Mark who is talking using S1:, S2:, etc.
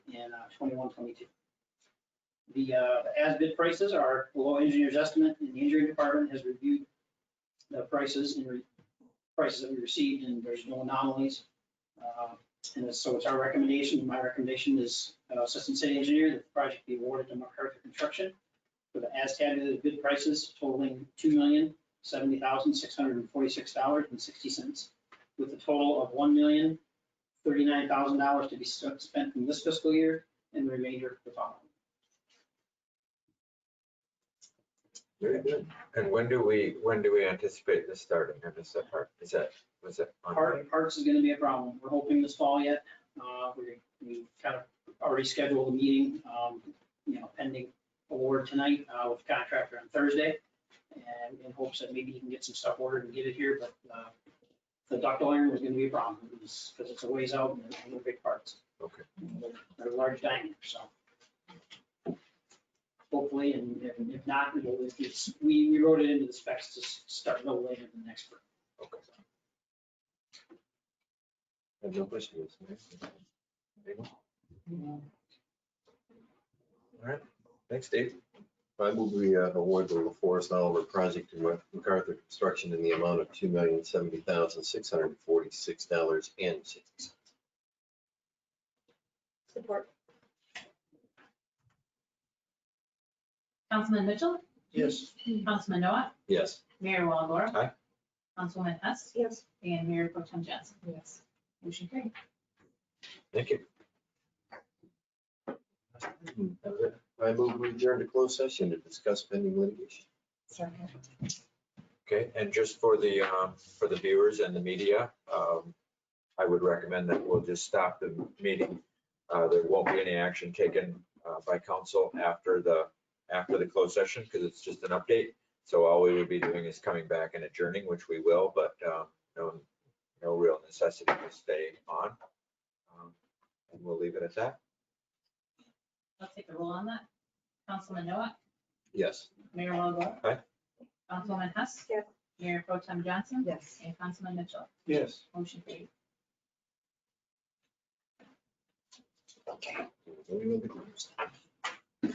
S1: uh, 21, 22. The uh, the as-bid prices are below engineer's estimate, and the engineering department has reviewed the prices and re- prices that we received, and there's no anomalies. Uh, And it's- so it's our recommendation, my recommendation is uh, Assistant City Engineer, that the project be awarded to MacArthur Construction for the as-tabulated bid prices totaling $2,070,646.60, with a total of $1,039,000 to be stu- spent in this fiscal year and the remainder the following.
S2: Very good.
S3: And when do we, when do we anticipate this starting? I missed that part. Is that, was it? on
S1: Part, parts is gonna be a problem. We're hoping this fall yet. Uh, we, we kind of already scheduled a meeting, um, you know, pending award tonight, uh, with the contractor on Thursday. And in hopes that maybe he can get some stuff ordered and get it here, but, uh, the ductile iron was gonna be a problem, because it's a ways out and they're big parts.
S3: Okay.
S1: They're large diameter, so. Hopefully, and if- if not, it'll, it's, we, we wrote it into the specs to s- start no later than next spring.
S3: Okay. I have no questions. Anyone? All right, thanks, Dave.
S2: I move we uh, award the La Forest Oliver project to MacArthur Construction in the amount of two million seventy thousand six hundred forty-six dollars and sixty cents.
S4: Support.
S5: Councilman Mitchell,
S2: Yes.
S5: Councilman Noah,
S2: Yes.
S5: Mayor Walagora.
S3: Aye.
S5: Councilwoman Hess
S4: Yes.
S5: and Mayor Pro Tem Johnson.
S4: Yes.
S5: Motion carried.
S3: Thank you.
S2: I move we adjourn to closed session to discuss pending litigation.
S4: Second.
S3: Okay, and just for the, um, for the viewers and the media, um, I would recommend that we'll just stop the meeting. Uh, there won't be any action taken, uh, by council after the, after the closed session, because it's just an update. So all we would be doing is coming back and adjourning, which we will, but, um, no, no real necessity to stay on. Um, And we'll leave it at that.
S5: Let's take a roll on that. Councilman Noah,
S2: Yes.
S5: Mayor Walagora.
S3: Aye.
S5: Councilwoman Hess.
S4: Yes.
S5: Mayor Pro Tem Johnson
S4: Yes.
S5: and Councilman Mitchell.
S2: Yes.
S5: Motion carried.
S2: Okay.